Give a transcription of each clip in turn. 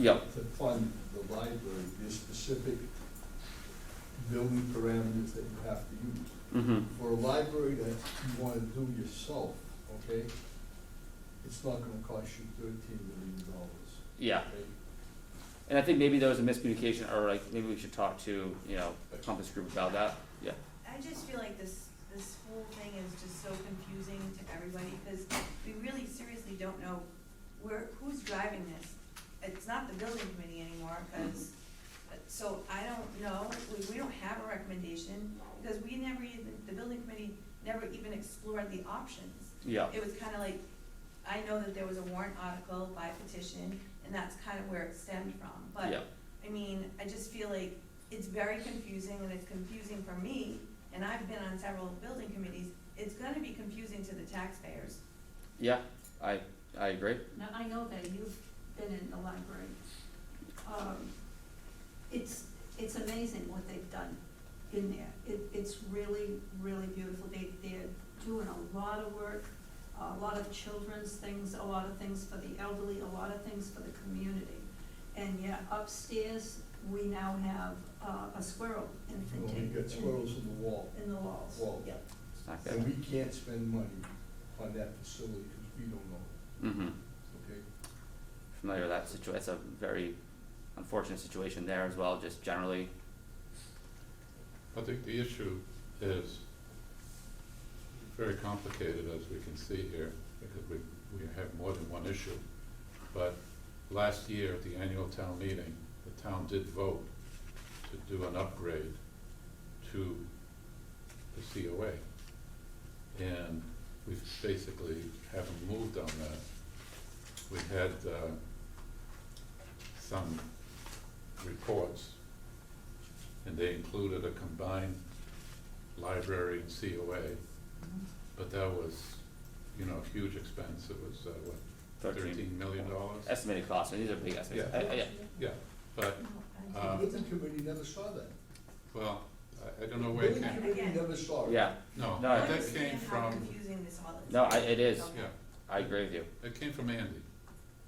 Yep, to fund the library, there's specific building parameters that you have to use. mm-hmm, For a library that you wanna do yourself, okay, it's not gonna cost you thirteen million dollars, yeah. okay? And I think maybe there was a miscommunication, or like, maybe we should talk to, you know, the Compass Group about that, yeah. I just feel like this, this whole thing is just so confusing to everybody, because we really seriously don't know where, who's driving this. It's not the building committee anymore, because, so I don't know, we, we don't have a recommendation, because we never even, the building committee never even explored the options. Yeah, It was kind of like, I know that there was a warrant article by petition, and that's kind of where it stemmed from, but yeah, I mean, I just feel like it's very confusing and it's confusing for me, and I've been on several building committees. It's gonna be confusing to the taxpayers. yeah, I, I agree, Now, I know that you've been in the library. Um, It's, it's amazing what they've done in there. It, it's really, really beautiful. They, they're doing a lot of work, a lot of children's things, a lot of things for the elderly, a lot of things for the community. And yet upstairs, we now have uh, a squirrel You know, we infant got squirrels in the wall, in the walls. Wall. Yep. it's not and good, we can't spend money on that facility, cause we don't know, mm-hmm, okay? familiar with that situ, it's a very unfortunate situation there as well, just generally, I think the issue is very complicated, as we can see here, because we, we have more than one issue. But last year, at the annual town meeting, the town did vote to do an upgrade to the COA. And we basically haven't moved on that. We had, uh, some reports and they included a combined library and COA, but that was, you know, a huge expense, it was, uh, what, thirteen, thirteen million dollars? estimated costs, and these are big estimates, Yeah. I, I, yeah, Yeah, but, Oh, The Uh, building committee never saw that. well, I, I don't know The where it building came, committee Again. never saw it. yeah, no, No, I I Uh, that think came understand how from, confusing this all is. no, I, it is, So- yeah, I agree with you, it came from Andy.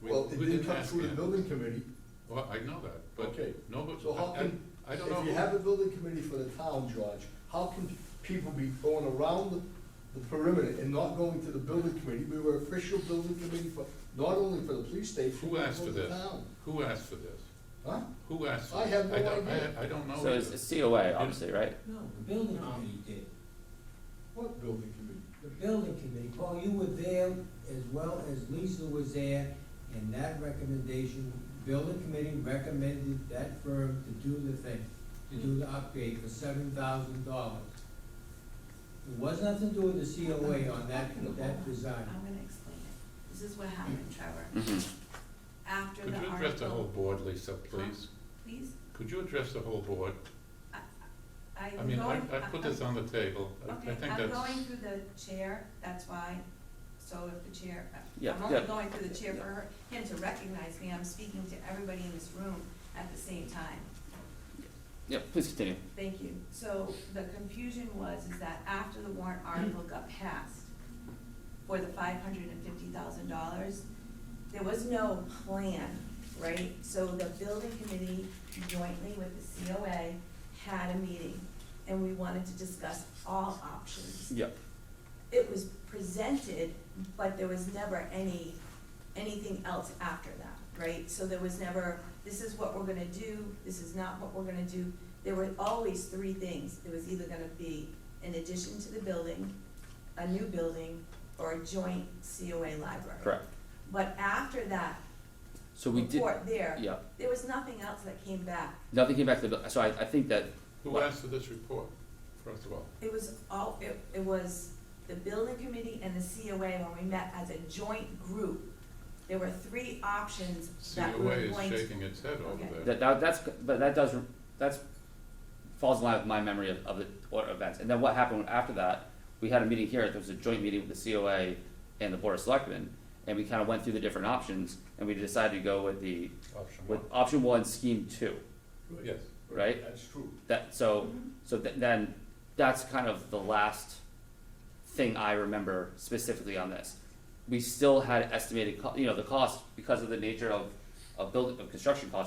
We- Well, it we didn't come ask through the Andy. building committee, Well, I know that, but okay? no, but So how I- I- can, I don't know. If you have a building committee for the town, George, how can people be going around the- the perimeter and not going to the building committee? We were official building committee for, not only for the police station, Who but asked for for the this? town. Who asked for this? Huh? Who asked for I this? have no don't- I- idea. I don't know. so it's, either. it's COA, obviously, right? No, the building committee did. What building committee? The building committee, Paul, you were there as well as Lisa was there, and that recommendation, building committee recommended that firm to do the thing, to do the upgrade for seven thousand dollars. It was nothing to do with the COA on that, that design. I'm gonna explain it. This is what happened, Trevor. Mm-hmm, After Could the you address the whole article, board, Lisa, please? please, Could you address the whole board? I'm I going. mean, I, I put this on the table, I I Okay, think that's. I'm going through the chair, that's why, so if the chair, Yeah, I'm only yeah. going through the chair for her, him to recognize me, I'm speaking to everybody in this room at the same time. yeah, please continue, Thank you. So the confusion was, is that after the warrant article got passed for the five hundred and fifty thousand dollars, there was no plan, right? So the building committee jointly with the COA had a meeting, and we wanted to discuss all options yeah, it was presented, but there was never any, anything else after that, right? So there was never, this is what we're gonna do, this is not what we're gonna do. There were always three things. It was either gonna be an addition to the building, a new building, or a joint COA library. correct, But after that so we did, report there, yeah, there was nothing else that came back. nothing came back to the, bu- so I, I think that Who asked for this report, first of all? It was all, it, it was the building committee and the COA when we met as a joint group. There were three options that we COA were is going to. shaking its head Okay. over there. That, that that's but that does that's falls in line with my memory of, of the or events. And then what happened after that? We had a meeting here. There was a joint meeting with the COA and the board of selectmen, and we kind of went through the different options, and we decided to go with the Option with one. option one, scheme two. Yes, Right. That's true. That so so th- then that's kind of the last thing I remember specifically on this. We still had estimated, co- you know, the cost because of the nature of of building, of construction costs